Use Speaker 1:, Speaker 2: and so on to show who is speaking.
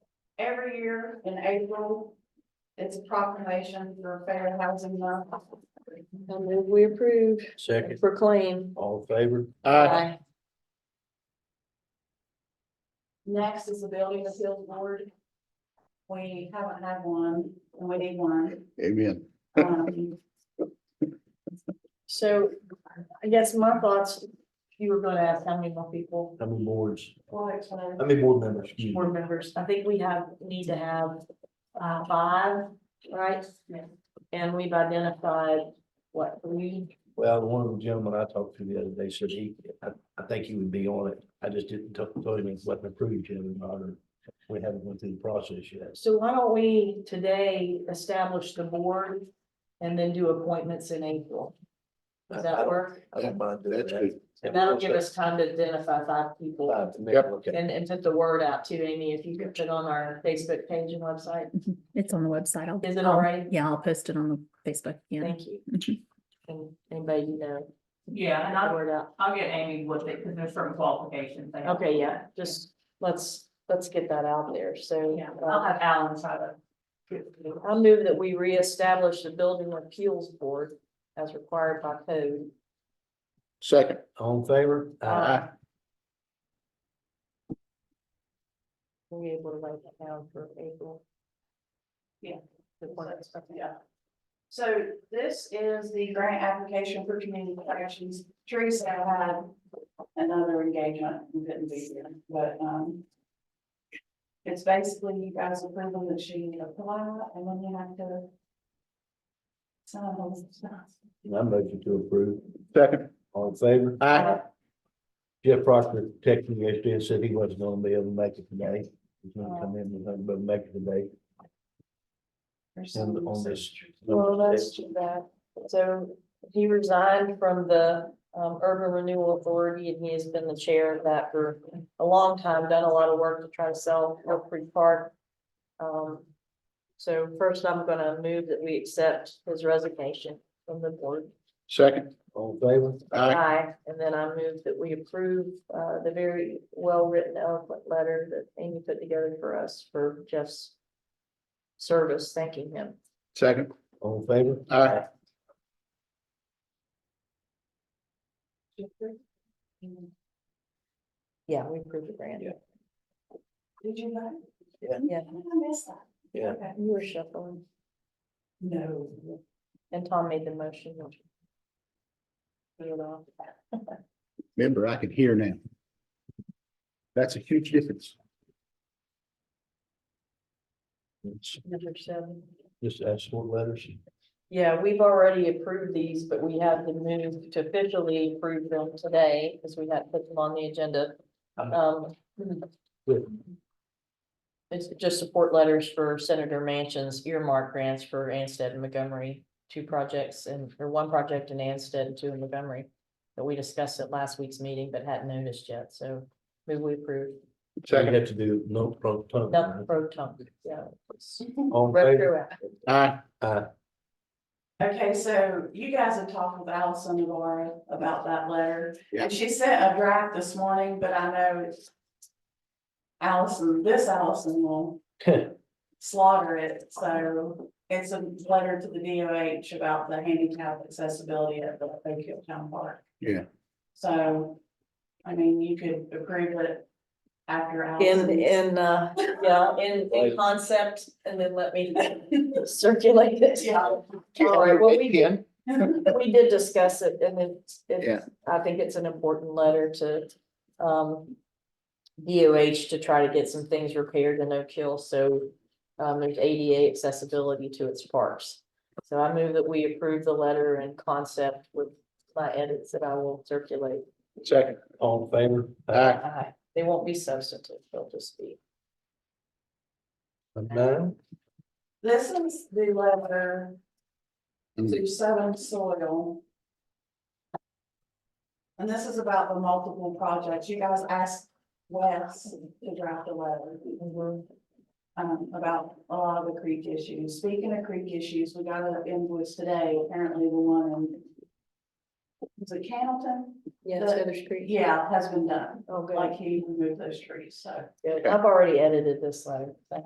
Speaker 1: every year in April, it's a proclamation for Fair Housing Month.
Speaker 2: I move we approve,
Speaker 3: Second,
Speaker 2: proclaim.
Speaker 3: all in favor?
Speaker 2: Aye.
Speaker 1: Next is the Building Appeals Board. We haven't had one, and we need one.
Speaker 4: Amen.
Speaker 1: Um,
Speaker 2: So I guess my thoughts, you were gonna ask how many more people,
Speaker 3: How many boards,
Speaker 1: well, it's uh, one of
Speaker 3: how many board members? Excuse me.
Speaker 2: board members, I think we have, need to have uh five, right? And we've identified what, three,
Speaker 3: Well, one of the gentlemen I talked to the other day said he, I, I think he would be on it. I just didn't tell, told him it wasn't approved yet or not, or we haven't went through the process yet.
Speaker 2: so why don't we today establish the board and then do appointments in April? Does that work?
Speaker 3: I don't mind doing
Speaker 4: That's
Speaker 3: that. Uh,
Speaker 4: good.
Speaker 2: That'll give us time to identify five people.
Speaker 3: Five to me,
Speaker 4: Yep.
Speaker 3: Okay,
Speaker 2: And, and put the word out too, Amy, if you could put on our Facebook page and website.
Speaker 5: It's on the website. I'll-
Speaker 2: Is it
Speaker 5: I'll-
Speaker 2: already?
Speaker 5: Yeah, I'll post it on the Facebook. Yeah.
Speaker 2: Thank you.
Speaker 5: Mhm.
Speaker 2: And anybody you know.
Speaker 6: Yeah, and
Speaker 2: put the
Speaker 6: I'll,
Speaker 2: Word out.
Speaker 6: I'll get Amy with it, because there's certain qualifications. they have.
Speaker 2: Okay, yeah, just let's, let's get that out there. So.
Speaker 6: Yeah,
Speaker 2: uh,
Speaker 6: I'll have Alan try to.
Speaker 2: I move that we reestablish the building appeals board as required by code.
Speaker 4: Second.
Speaker 3: all in favor?
Speaker 2: Uh, We'll be able to write that down for April.
Speaker 1: Yeah.
Speaker 2: The one that's-
Speaker 1: Yeah. So this is the grant application for community corrections. Teresa had another engagement and couldn't be here, but, um, it's basically you guys approval that she applied and then you have to sign those stuff.
Speaker 3: I'm motion to approve,
Speaker 4: Second.
Speaker 3: all in favor?
Speaker 4: Aye.
Speaker 3: Jeff Proctor texted me yesterday and said he wasn't gonna be able to make it today. He's
Speaker 2: Oh.
Speaker 3: gonna come in and nothing but make it today.
Speaker 1: or
Speaker 3: And
Speaker 1: something.
Speaker 3: on this.
Speaker 2: Well, that's too bad. So he resigned from the um Urban Renewal Authority and he has been the chair of that for a long time, done a lot of work to try to sell Oak Creek Park. Um, so first I'm gonna move that we accept his resignation from the board.
Speaker 4: Second.
Speaker 3: All in favor?
Speaker 4: Aye.
Speaker 2: Aye. And then I move that we approve uh the very well-written eloquent letter that Amy put together for us for Jeff's service, thanking him.
Speaker 4: Second.
Speaker 3: All in favor?
Speaker 4: Aye.
Speaker 2: Yeah, we approved the grant.
Speaker 3: Yeah.
Speaker 1: Did you know?
Speaker 3: Yeah.
Speaker 2: Yeah.
Speaker 1: I missed that.
Speaker 3: Yeah.
Speaker 1: Okay.
Speaker 2: You were shuffling.
Speaker 1: No.
Speaker 2: And Tom made the motion. which- Put it off.
Speaker 4: Remember, I can hear now. That's a huge difference.
Speaker 3: It's
Speaker 2: Number seven.
Speaker 3: Just ask for letters.
Speaker 2: Yeah, we've already approved these, but we have to move to officially approve them today because we had to put them on the agenda.
Speaker 3: I'm-
Speaker 2: Um, it's just support letters for Senator Manchin's earmark grants for Anstead and Montgomery, two projects and, or one project in Anstead and two in Montgomery. That we discussed at last week's meeting but hadn't noticed yet, so move we approve,
Speaker 3: So you have to do no pro tunc,
Speaker 2: not
Speaker 3: right?
Speaker 2: pro tunc, yeah.
Speaker 3: All in favor?
Speaker 2: Retroactive.
Speaker 4: Aye.
Speaker 3: Aye.
Speaker 1: Okay, so you guys have talked with Allison Navarro about that letter,
Speaker 4: Yeah.
Speaker 1: and she sent a draft this morning, but I know it's- Allison, this Allison will slaughter it, so it's a letter to the DOH about the handicap accessibility at the Oak Hill Town Park.
Speaker 4: Yeah.
Speaker 1: So, I mean, you could approve it after
Speaker 2: In,
Speaker 1: Allison's.
Speaker 2: in, uh, yeah, in, in
Speaker 3: Right.
Speaker 2: concept, and then let me circulate it.
Speaker 1: Yeah.
Speaker 2: All right, well, we did,
Speaker 4: Again,
Speaker 2: we did discuss it, and it's,
Speaker 4: Yeah.
Speaker 2: it's, I think it's an important letter to, um. DOH to try to get some things repaired in Oak Hill, so, um, there's ADA accessibility to its parks. So I move that we approve the letter and concept with my edits that I will circulate.
Speaker 4: Second.
Speaker 3: All in favor?
Speaker 4: Aye.
Speaker 2: Aye. They won't be substantive, they'll just be.
Speaker 3: Nine,
Speaker 1: This is the letter
Speaker 4: Mm.
Speaker 1: to Southern Soil. And this is about the multiple projects. You guys asked Wes to draft a letter um, about a lot of the creek issues. Speaking of creek issues, we got an invoice today, apparently the one in was it Cannleton?
Speaker 2: Yeah,
Speaker 1: it's
Speaker 2: Feather Street.
Speaker 1: Yeah, has been done,
Speaker 2: Oh, good.
Speaker 1: like he removed those trees, so.
Speaker 2: Good. I've already edited this letter. Thank